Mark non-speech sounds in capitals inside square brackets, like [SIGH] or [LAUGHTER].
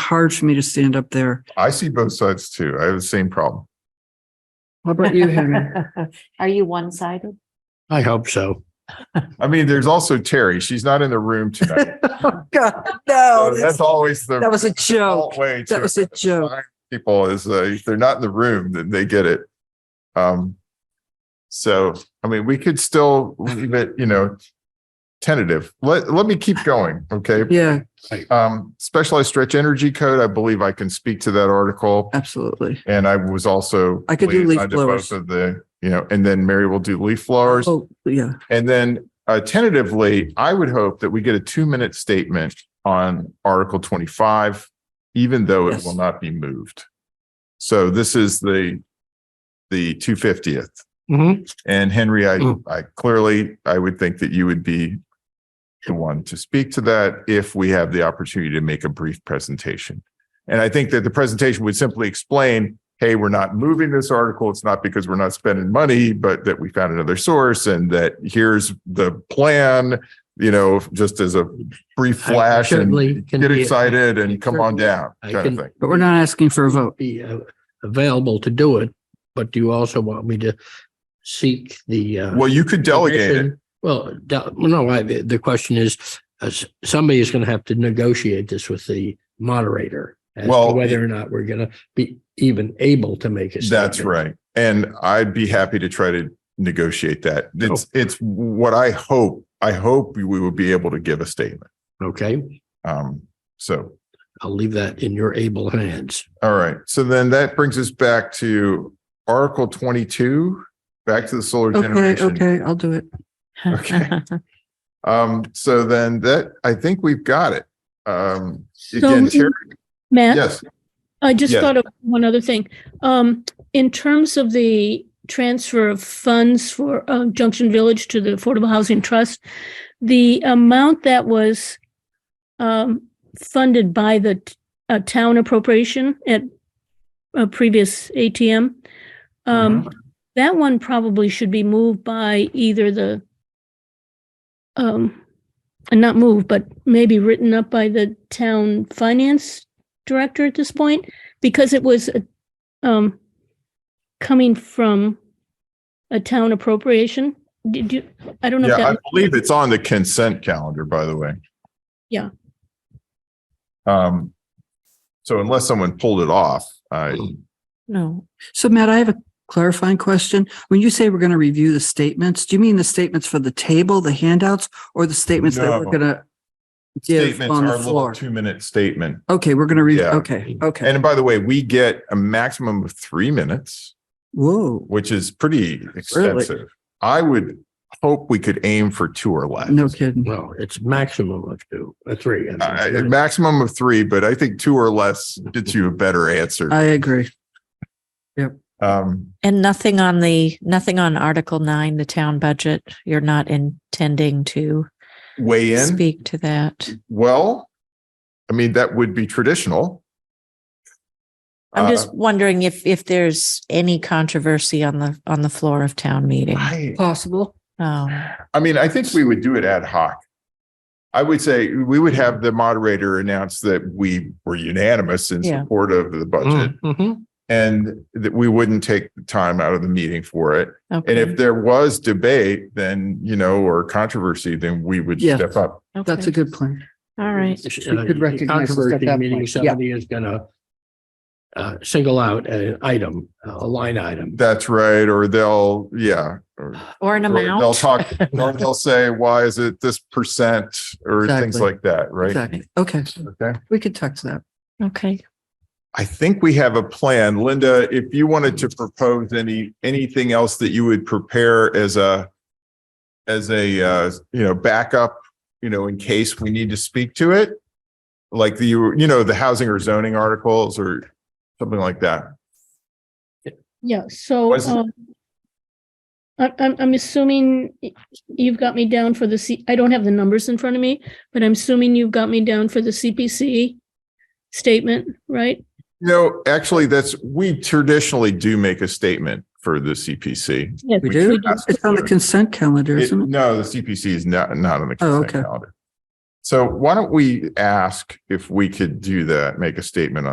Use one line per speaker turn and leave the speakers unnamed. hard for me to stand up there.
I see both sides too. I have the same problem.
How about you, Henry?
[LAUGHS] Are you one-sided?
I hope so.
I mean, there's also Terry. She's not in the
[LAUGHS]
room tonight.
Oh, [LAUGHS] God,
So
no.
Oh, That's always the.
Oh, That was a
default
joke.
Way
That
to
was a joke.
find People is, uh, if they're not in the room, then they get it. Um, so, I mean, we could still leave it, you know, tentative. Let, let me keep going, okay?
Yeah,
Um, specialized stretch energy code, I believe I can speak to that article.
absolutely.
And I was also.
I could do leaf
I did both
blowers.
Of the, you know, and then Mary will do leaf blowers.
Oh, yeah.
And then uh, tentatively, I would hope that we get a two minute statement on Article 25, even though it
Yes.
will not be moved. So this is the, the 250th. Mm-hmm.
Mhm.
And Henry, I,
Mm.
I clearly, I would think that you would be the one to speak to that if we have the opportunity to make a brief presentation. And I think that the presentation would simply explain, hey, we're not moving this article. It's not because we're not spending money, but that we found another source and that here's the plan, you know, just as a brief
I
flash
certainly
and
can
get
be-
excited and come on down
I
kind of
can-
thing.
But we're not asking for a vote.
Be uh, available to do it, but do you also want me to seek the? uh,
Well, you could delegate it.
permission? Well, de- well, no, I, the the question is, uh, s- somebody is going to have to negotiate this with the moderator as to
Well,
whether or not we're going to be even able to make it.
That's right. And I'd be happy to try to negotiate that. It's, it's what I hope, I hope we will be able to give a statement.
Okay,
Um, so,
I'll leave that in your able hands.
all right. So then that brings us back to Article twenty-two, back to the solar
Okay,
generation.
okay, I'll do it.
Okay.
[LAUGHS]
Um, so then that, I think we've got it. Um, again, Terry,
Matt,
yes,
I just
yes.
thought of one other thing. Um, in terms of the transfer of funds for uh, Junction Village to the Affordable Housing Trust, the amount that was um, funded by the t- uh, town appropriation at a previous ATM, um, that one probably should be moved by either the um, and not moved, but maybe written up by the town finance director at this point because it was uh, um coming from a town appropriation. Did you, I don't know. if
yeah, I
that-
believe it's on the consent calendar, by the way.
Yeah.
Um, so unless someone pulled it off, I,
No,
So Matt, I have a clarifying question. When you say we're going to review the statements, do you mean the statements for the table, the handouts, or the statements that we're
No.
going to give
statements
on
are
the
a little
floor?
two minute statement.
Okay, we're going to read,
Yeah.
okay, okay.
And by the way, we get a maximum of three minutes,
Whoa,
which is pretty extensive. I would hope we could aim for two or less.
no kidding.
Well, it's maximum of two, uh, three. I mean,
I- a maximum of three, but I think two or less gets you a better answer.
I agree.
Um,
and nothing on the, nothing on Article nine, the town budget. You're not intending to
weigh in.
speak to that.
Well, I mean, that would be traditional.
I'm
Uh,
just wondering if, if there's any controversy on the, on the floor of town meeting.
I,
Possible.
Um,
I mean, I think we would do it ad hoc. I would say we would have the moderator announce that we were unanimous in
Yeah.
support of the budget
Mhm.
and that we wouldn't take the time out of the meeting for it. And
okay.
if there was debate, then, you know, or controversy, then we would
Yeah.
step up.
That's a
Okay.
good plan.
All right.
We could recognize us at
Controversy
that
meaning
point, yeah.
Somebody is gonna uh, single out an item, a line item.
That's right. Or they'll, yeah. Or
Or an
or They'll
amount.
talk, or they'll say, why is it this percent or things
Exactly.
like that, right?
Exactly. Okay,
Okay.
we could text that.
Okay.
I think we have a plan. Linda, if you wanted to propose any, anything else that you would prepare as a, as a, uh, you know, backup, you know, in case we need to speak to it? Like the, you know, the housing or zoning articles or something like that.
Yeah, so
Was-
um, I- I'm, I'm assuming y- you've got me down for the C, I don't have the numbers in front of me, but I'm assuming you've got me down for the CPC statement, right?
No, actually, that's, we traditionally do make a statement for the CPC.
Yes.
We
We
do?
could ask
It's on the
for it.
consent calendar,
It-
isn't it?
No, the CPC is not, not on the
Oh,
consent
okay.
calendar. So why don't we ask if we could do that, make a statement on.